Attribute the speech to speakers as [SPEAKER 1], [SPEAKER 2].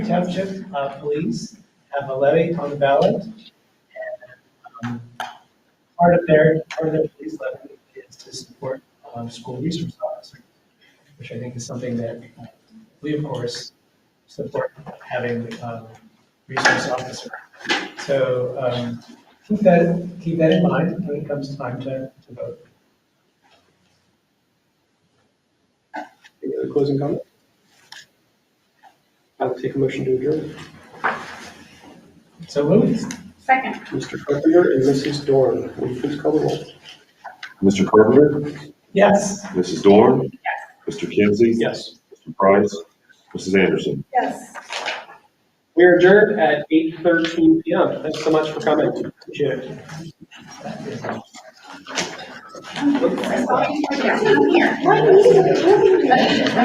[SPEAKER 1] Township uh, Police have a levy on the ballot. and, um, Part of their, part of their police levy is to support um, school resource officers, which I think is something that uh, we, of course, support having um, resource officer. So um, keep that, keep that in mind when it comes time to to vote.
[SPEAKER 2] Any other closing comment? I'll take a motion to adjourn.
[SPEAKER 1] So Louis,
[SPEAKER 3] Second.
[SPEAKER 2] Mr. Carpenter and Mrs. Dorn, will you please call the roll?
[SPEAKER 4] Mr. Carpenter,
[SPEAKER 1] yes.
[SPEAKER 4] Mrs. Dorn. Mr. Kinsey.
[SPEAKER 2] Yes.
[SPEAKER 4] Mr. Price, Mrs. Anderson.
[SPEAKER 3] Yes.
[SPEAKER 2] We are adjourned at 8:13 PM. Thanks so much for coming. Appreciate it.
[SPEAKER 3] Yes, I'm here.